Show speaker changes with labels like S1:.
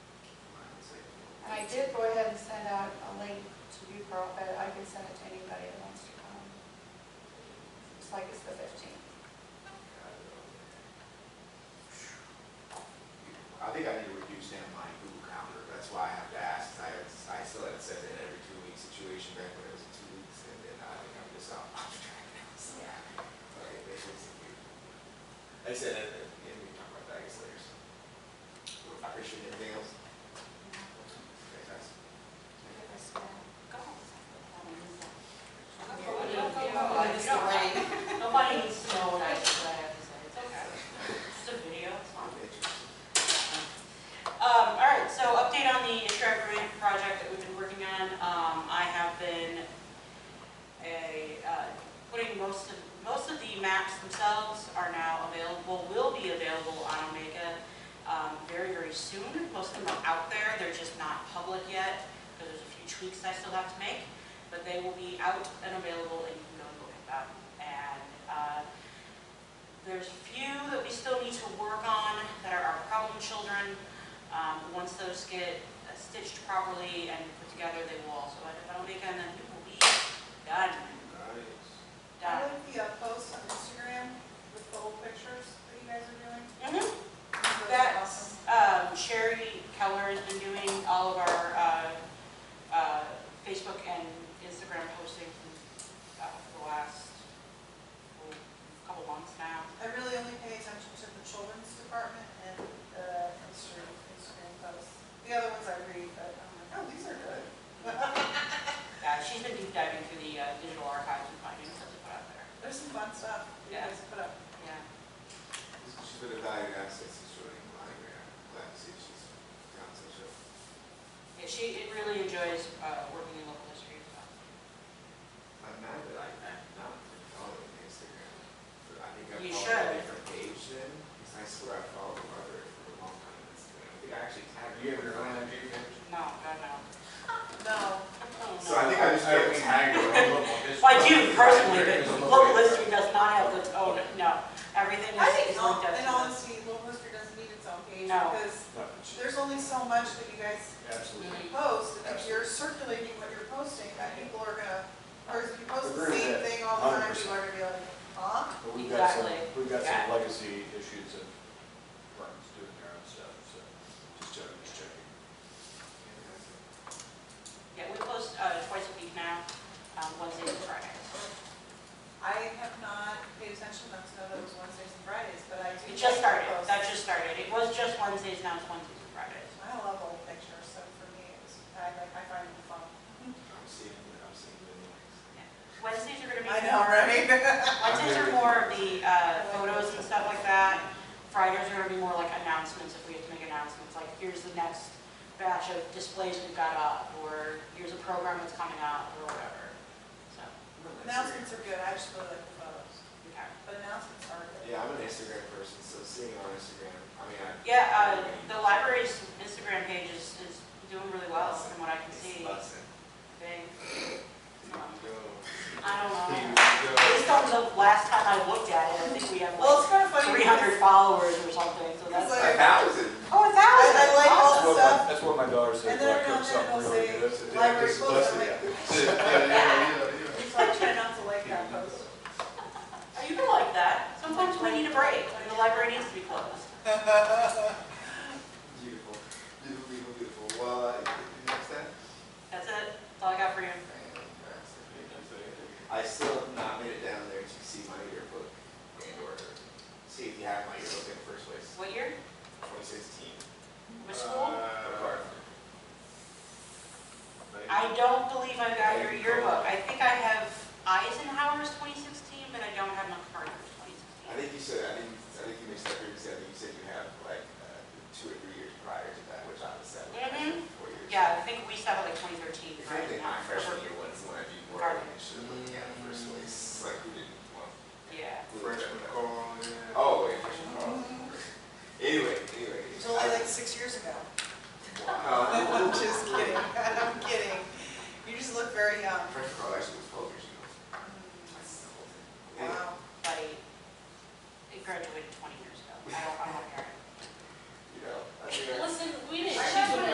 S1: did go ahead and send out a link to Bucor, but I can send it to anybody that wants to come. It's like it's the fifteenth.
S2: I think I need to reduce down my Google calendar, that's why I have to ask, I, I still had it set in every two week situation back when it was two weeks, and then I think I'm just out of track now, so. Okay, this is weird. I said, and, and and we can talk about that, I guess, later, so. I appreciate everything else. Okay, thanks.
S3: It's the rain. Nobody needs to know what I what I have to say. It's okay. Just a video, it's fine. Um, all right, so update on the Shrek Grant project that we've been working on. Um, I have been a, uh, putting most of, most of the maps themselves are now available, will be available on Omega, um, very, very soon. Most of them are out there, they're just not public yet, because there's a few tweaks I still have to make. But they will be out and available, and you can go and look at them. And, uh, there's a few that we still need to work on that are our problem children. Um, Once those get uh, stitched properly and put together, they will also end up on Omega, and then we will be done,
S4: I
S3: done.
S4: like the uh, posts on Instagram with the old pictures that you guys are doing.
S3: Mhm.
S4: Those are awesome.
S3: That's, um, Sherry Keller has been doing all of our uh, uh, Facebook and Instagram posting uh, for the last oh, couple months now.
S4: I really only pay attention to the children's department and the Instagram, Instagram posts. The other ones I read, but I'm like, oh, these are good.
S3: Yeah, she's been deep diving through the uh, digital archives and finding stuff to put out there.
S4: There's some fun stuff you
S3: Yeah.
S4: guys put up.
S3: Yeah.
S2: She's been evaluating access to showing monogram, glad to see she's down to show.
S3: Yeah, she it really enjoys uh, working in local history as well.
S2: I'm mad that I, I'm not following Instagram, but I think I
S3: You
S2: followed
S3: should.
S2: a different page then, because I swear I followed the other for a long time on Instagram. I think I actually tagged you ever on that page?
S3: No, God, no.
S4: No,
S3: Oh,
S2: So I think I just
S5: I
S2: got
S5: would
S2: tagged.
S5: tag you on local history.
S3: Like you personally, but
S5: Because of
S3: local
S5: local-
S3: history does not have its own, no, everything is
S4: I think
S3: is
S4: all-
S3: linked up
S4: in
S3: to
S4: all honesty, Little History doesn't need its own page
S3: No.
S4: because
S5: No, it's-
S4: there's only so much that you guys
S5: Absolutely.
S3: Mhm.
S4: post. and If you're circulating what you're posting, that people are gonna, or if you post the
S5: Agree with
S4: same
S5: that,
S4: thing all the time,
S5: 100%.
S4: people are gonna be like, huh?
S5: But we've got some,
S3: Exactly.
S5: we've got
S3: Yeah.
S5: some legacy issues of firms doing their own stuff, so just checking, just checking.
S3: Yeah, we post uh, twice a week now, um, Wednesdays and Fridays.
S4: I have not paid attention enough to know that it was Wednesdays and Fridays, but I do.
S3: It just started,
S4: like those.
S3: that just started, it was just Wednesdays, now it's Wednesdays and Fridays.
S4: I love old pictures, so for me, it was, I like, I find them fun.
S2: I'm seeing, I'm seeing the noise.
S3: Wednesdays are gonna be.
S4: right?
S3: Wednesdays are more of the uh, photos and stuff like that. Fridays are gonna be more like announcements, if we have to make announcements, like here's the next batch of displays we've got up, or here's a program that's coming up, or whatever. So,
S4: Announcements are good, I just really like the photos,
S3: okay.
S4: but announcements are good.
S2: Yeah, I'm an Instagram person, so seeing on Instagram, I mean, I.
S3: Yeah, uh, the library's Instagram page is, is doing really well from what I can
S2: It's
S3: see.
S2: lesson.
S3: They,
S2: Here we go.
S3: I don't
S2: Here
S3: know.
S2: we go.
S3: Based on the last time I looked at it, I think we have
S4: Well,
S3: like
S4: it's kind of funny.
S3: three hundred followers or something, so that's.
S2: A
S4: It's
S2: thousand.
S3: Oh, a thousand,
S4: I like all
S3: awesome.
S4: the
S5: That's what my-
S4: stuff.
S5: That's what my daughter said,
S4: And then
S5: like,
S4: around
S5: cook
S4: there,
S5: something
S4: they'll
S5: really good.
S4: say, library post, I'm like,
S2: Yeah, yeah, yeah, yeah.
S4: it's like trying not to like that post.
S3: Are you gonna like that? Sometimes we need a break, and the library needs to be closed.
S2: Beautiful, beautiful, beautiful, beautiful. Well, uh, you know what
S3: That's it, that's all I got for you.
S2: I still have not made it down there to see my yearbook and or see if you have my yearbook in the first place.
S3: What year?
S2: Twenty sixteen.
S3: Which
S4: Uh,
S3: school?
S5: Uh,
S3: I don't believe I got your yearbook. I think I have
S2: uh, Oh,
S3: Eisenhower
S4: Mm-hmm.